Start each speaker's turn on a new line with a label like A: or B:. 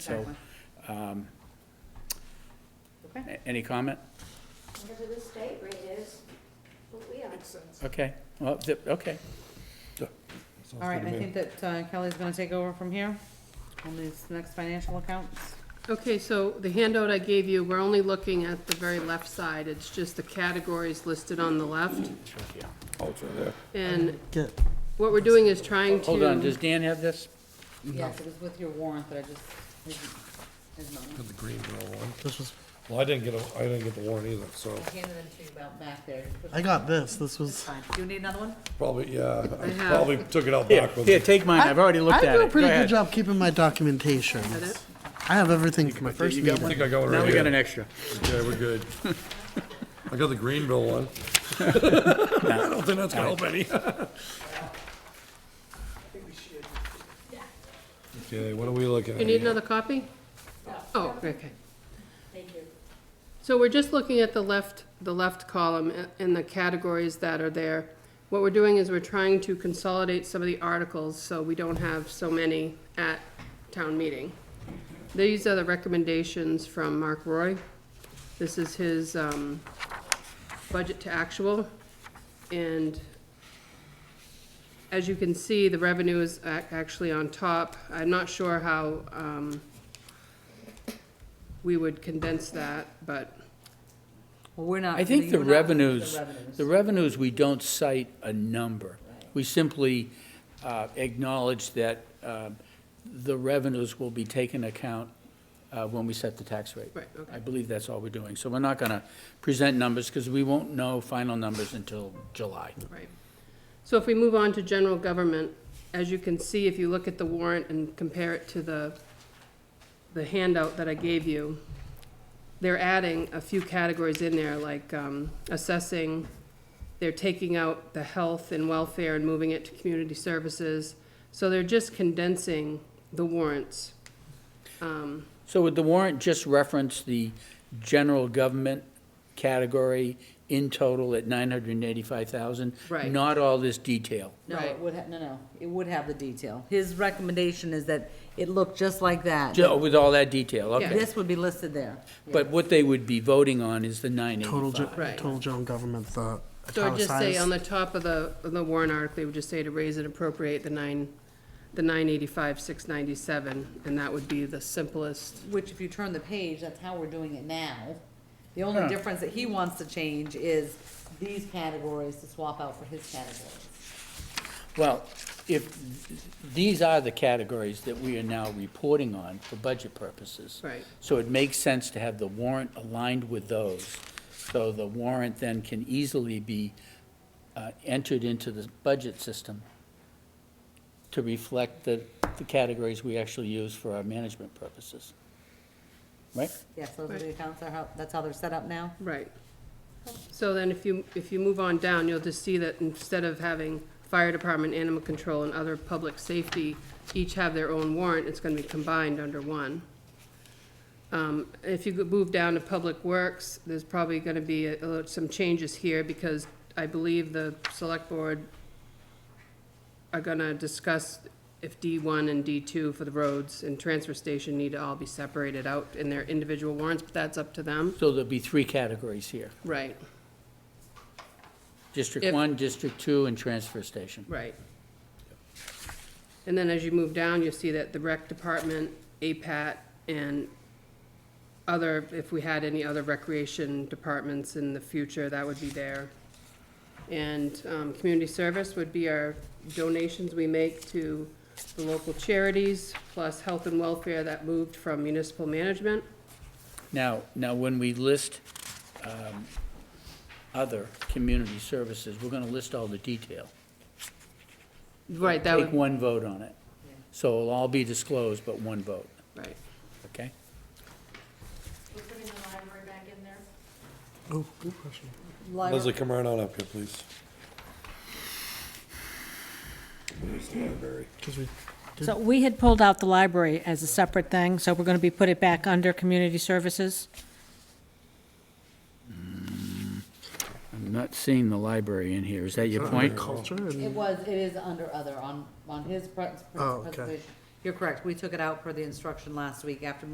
A: So,
B: Exactly.
A: um,
B: Okay.
A: a- any comment?
C: Whatever the state rate is, what we are.
A: Okay, well, th- okay.
B: All right, I think that uh, Kelly's gonna take over from here on these next financial accounts.
D: Okay, so the handout I gave you, we're only looking at the very left side. It's just the categories listed on the left. And what we're doing is trying to.
A: Hold on, does Dan have this?
B: Yes, it was with your warrant that I just, his, his mom.
E: The Greenville one. This was. Well, I didn't get, a- I didn't get the warrant either, so
B: I handed them to you about back there.
F: I got this. This
B: It's
F: was.
B: fine. Do you need another one?
E: probably, yeah, I
D: have-
E: probably took it out
A: Here,
E: back with
A: here,
E: me.
A: take mine, I've already looked
F: I
A: at it.
F: do a pretty
A: Go
F: good
A: ahead.
F: job keeping my documentation.
D: it?
F: I have everything for my first
A: You got
F: meeting.
E: I think I got one
A: Now
E: right
A: we got an
E: here.
A: extra.
E: Okay, we're good. I got the Greenville one. I don't think that's gonna help any. Okay, what are we looking at?
D: You need
E: here?
D: another copy? Oh, okay. Thank you. So we're just looking at the left, the left column a- and the categories that are there. What we're doing is we're trying to consolidate some of the articles, so we don't have so many at town meeting. These are the recommendations from Mark Roy. This is his, um, budget to actual, and as you can see, the revenue is ac- actually on top. I'm not sure how um, we would condense that, but,
B: Well, we're not.
A: I think
B: you
A: the
B: and I-
A: revenues, the
B: revenues.
A: revenues, we don't cite a number. We simply uh, acknowledge that um, the revenues will be taken account uh, when we set the tax rate.
D: Right, okay.
A: I believe that's all we're doing. So we're not going to present numbers because we won't know final numbers until July.
D: right. So if we move on to general government, as you can see, if you look at the warrant and compare it to the, the handout that I gave you, they're adding a few categories in there, like um, assessing, they're taking out the health and welfare and moving it to community services. So they're just condensing the warrants.
A: So would the warrant just reference the general government category in total at nine hundred and eighty-five thousand?
D: Right.
A: Not all this detail.
B: No,
D: Right.
B: it would, ha- no, no, it would have the detail. His recommendation is that it looked just like that.
A: Ju- With all that detail,
D: Yeah.
A: okay.
B: This would be listed there.
A: But what they would be voting on is the nine
F: Total, ge-
A: eighty-five.
D: Right.
F: total general government. The
D: So I'd just say
F: italicized.
D: on the top of the, of the warrant article, they would just say to raise and appropriate the nine, the nine eighty-five, six ninety-seven, and that would be the simplest.
B: Which if you turn the page, that's how we're doing it now. The only difference that he wants to change is these categories to swap out for his categories.
A: Well, if, these are the categories that we are now reporting on for budget purposes.
D: Right.
A: So it makes sense to have the warrant aligned with those. So the warrant then can easily be uh, entered into the budget system to reflect the, the categories we actually use for our management purposes. Right?
B: Yes, those are the
D: Right.
B: accounts, that are how- that's how they're set up now?
D: Right. So then if you, if you move on down, you'll just see that instead of having fire department, animal control, and other public safety each have their own warrant, it's gonna be combined under one. Um, if you could move down to public works, there's probably gonna be a- a lot- some changes here because I believe the select board are gonna discuss if D one and D two for the roads and transfer station need to all be separated out in their individual warrants, but that's up to them.
A: So there'll be three categories here.
D: Right.
A: District
D: If-
A: one, district two, and transfer station.
D: Right. And then as you move down, you see that the rec department, APAT, and other, if we had any other recreation departments in the future, that would be there. And, um, community service would be our donations we make to the local charities, plus health and welfare that moved from municipal management.
A: Now, now, when we list um, other community services, we're going to list all the detail.
D: Right, that
A: Take
D: would,
A: one vote on it. So it'll all be disclosed, but one vote,
D: right.
A: okay?
C: We're putting the library back in there.
F: Oh, good question.
E: Leslie, come right on up here, please. Where's the library?
F: 'Cause we did
G: So we had pulled out the library as a separate thing, so we're going to be, put it back under community services?
A: I'm not seeing the library in here, is that your point?
F: culture and
B: It was, it is under other on, on his pre- pre-
F: Oh, okay.
B: presentation. You're correct, we took it out per the instruction last week after